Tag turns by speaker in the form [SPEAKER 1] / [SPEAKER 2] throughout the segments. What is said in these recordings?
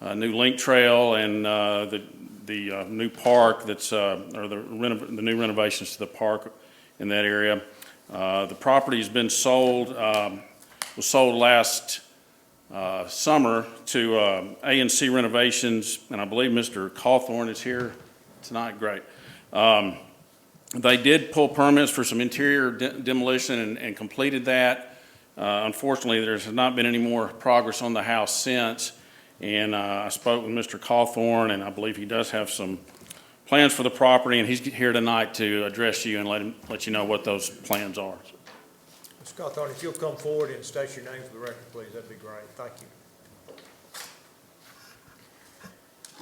[SPEAKER 1] uh, new link trail and uh, the, the uh, new park that's, uh, or the renov, the new renovations to the park in that area. Uh, The property's been sold, um, was sold last uh, summer to um, A and C Renovations, and I believe Mr. Cawthorn is here tonight, great. Um, They did pull permits for some interior de- demolition and- and completed that. Uh, Unfortunately, there's not been any more progress on the house since, and uh, I spoke with Mr. Cawthorn, and I believe he does have some plans for the property, and he's here tonight to address you and let him, let you know what those plans are.
[SPEAKER 2] Scott Thornton, if you'll come forward and state your name for the record, please, that'd be great. Thank you.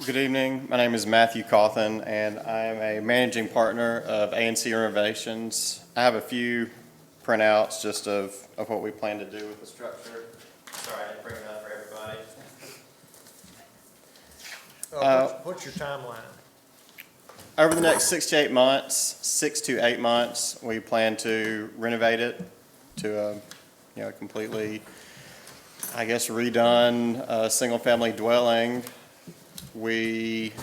[SPEAKER 3] Good evening. My name is Matthew Cawthon, and I am a managing partner of ANC Renovations. I have a few printouts just of, of what we plan to do with the structure. Sorry, I didn't bring it up for everybody.
[SPEAKER 2] Uh, what's- What's your timeline?
[SPEAKER 3] Over the next six to eight months, six to eight months, we plan to renovate it to a, you know, completely, I guess, redone, uh, single-family dwelling. We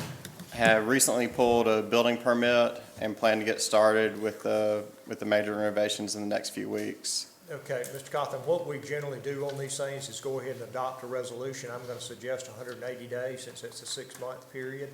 [SPEAKER 3] have recently pulled a building permit and plan to get started with the, with the major renovations in the next few weeks.
[SPEAKER 2] Okay, Mr. Cotham, what we generally do on these things is go ahead and adopt a resolution. I'm gonna suggest hundred and eighty days, since it's a six-month period.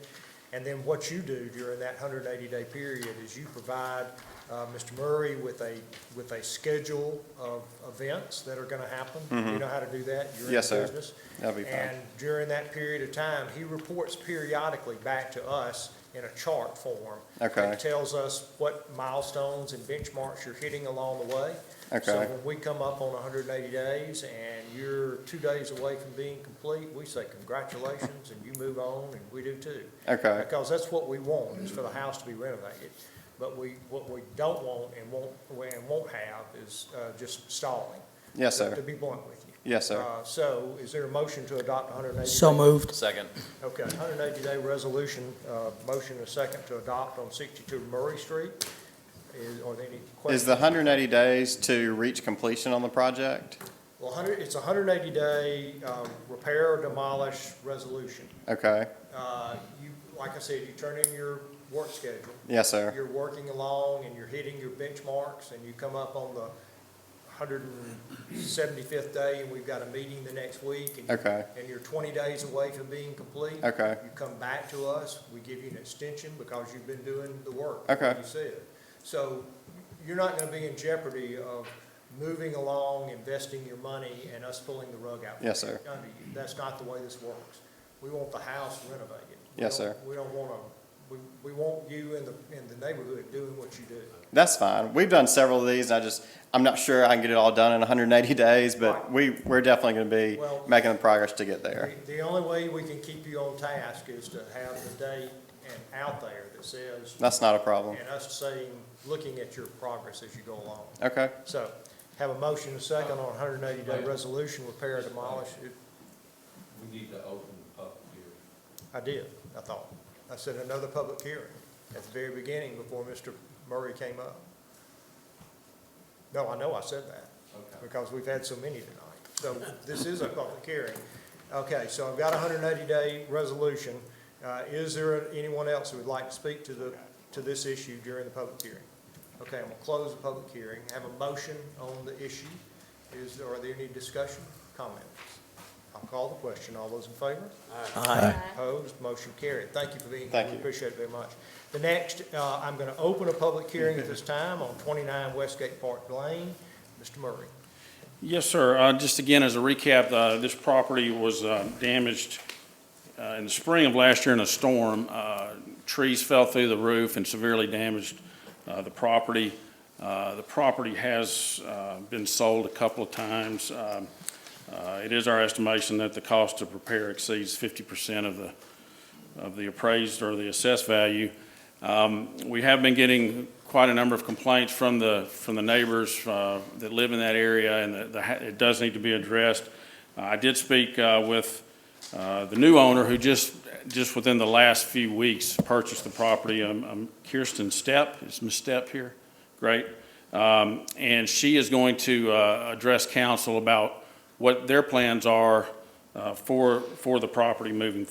[SPEAKER 2] And then what you do during that hundred and eighty-day period is you provide, uh, Mr. Murray with a, with a schedule of events that are gonna happen. You know how to do that? You're in
[SPEAKER 3] Mm-hmm. Yes,
[SPEAKER 2] the
[SPEAKER 3] sir.
[SPEAKER 2] business.
[SPEAKER 3] That'll be fine.
[SPEAKER 2] And during that period of time, he reports periodically back to us in a chart form.
[SPEAKER 3] Okay.
[SPEAKER 2] That tells us what milestones and benchmarks you're hitting along the way. So
[SPEAKER 3] Okay,
[SPEAKER 2] when we come up on hundred and eighty days and you're two days away from being complete, we say congratulations and you move on and we do too.
[SPEAKER 3] okay,
[SPEAKER 2] Because that's what we want, is for the house to be renovated. But we, what we don't want and won't, and won't have is, uh, just stalling.
[SPEAKER 3] yes,
[SPEAKER 2] To
[SPEAKER 3] sir,
[SPEAKER 2] be blunt with you.
[SPEAKER 3] yes, sir.
[SPEAKER 2] Uh, So is there a motion to adopt 180?
[SPEAKER 4] So moved.
[SPEAKER 5] Second.
[SPEAKER 2] Okay, 180-day resolution, uh, motion and second to adopt on 62 Murray Street. Is, are there any questions?
[SPEAKER 3] Is the hundred and eighty days to reach completion on the project?
[SPEAKER 2] Well, 100, it's a 180-day um, repair or demolish resolution.
[SPEAKER 3] Okay,
[SPEAKER 2] Uh, You, like I said, you turn in your work schedule.
[SPEAKER 3] yes, sir.
[SPEAKER 2] You're working along and you're hitting your benchmarks and you come up on the 175th day and we've got a meeting the next week. and-
[SPEAKER 3] Okay.
[SPEAKER 2] And you're 20 days away from being complete.
[SPEAKER 3] Okay.
[SPEAKER 2] You come back to us, we give you an extension because you've been doing the work. like
[SPEAKER 3] Okay.
[SPEAKER 2] You said. So you're not gonna be in jeopardy of moving along, investing your money, and us pulling the rug out. from
[SPEAKER 3] Yes, sir.
[SPEAKER 2] under you. That's not the way this works. We want the house renovated. We
[SPEAKER 3] Yes,
[SPEAKER 2] don't-
[SPEAKER 3] sir.
[SPEAKER 2] We don't wanna, we, we want you in the, in the neighborhood doing what you do.
[SPEAKER 3] That's fine. We've done several of these. I just, I'm not sure I can get it all done in 180 days, but
[SPEAKER 2] Right.
[SPEAKER 3] we, we're definitely going to be
[SPEAKER 2] Well-
[SPEAKER 3] making the progress to get there.
[SPEAKER 2] The- The only way we can keep you on task is to have the date and out there that says,
[SPEAKER 3] That's not a problem.
[SPEAKER 2] and us saying, looking at your progress as you go along.
[SPEAKER 3] Okay.
[SPEAKER 2] So, have a motion and second on hundred and eighty day resolution, repair and demolish. It-
[SPEAKER 5] We need to open the public hearing.
[SPEAKER 2] I did, I thought. I said another public hearing at the very beginning before Mr. Murray came up. No, I know I said that, because we've had so many tonight. So this is a public hearing. Okay, so I've got a hundred and eighty day resolution. Uh, is there anyone else who would like to speak to the, to this issue during the public hearing? Okay, I'm gonna close the public hearing, have a motion on the issue. Is, are there any discussion, comments? I'll call the question. All those in favor? Opposed, motion carried. Thank you for being here.
[SPEAKER 3] Thank
[SPEAKER 2] We
[SPEAKER 3] you.
[SPEAKER 2] appreciate it very much. The next, uh, I'm going to open a public hearing at this time on 29 Westgate Park Lane. Mr. Murray.
[SPEAKER 1] Yes, sir. Uh, Just again, as a recap, uh, this property was uh, damaged uh, in the spring of last year in a storm. Uh, Trees fell through the roof and severely damaged uh, the property. Uh, The property has uh, been sold a couple of times. Um, uh, It is our estimation that the cost of repair exceeds 50% of the, of the appraised or the assessed value. Um, We have been getting quite a number of complaints from the, from the neighbors uh, that live in that area, and the- the ha- it does need to be addressed. Uh, I did speak uh, with uh, the new owner who just, just within the last few weeks purchased the property. Um, um, Kirsten Stepp, is Ms. Stepp here? Great. Um, And she is going to uh, address council about what their plans are uh, for, for the property moving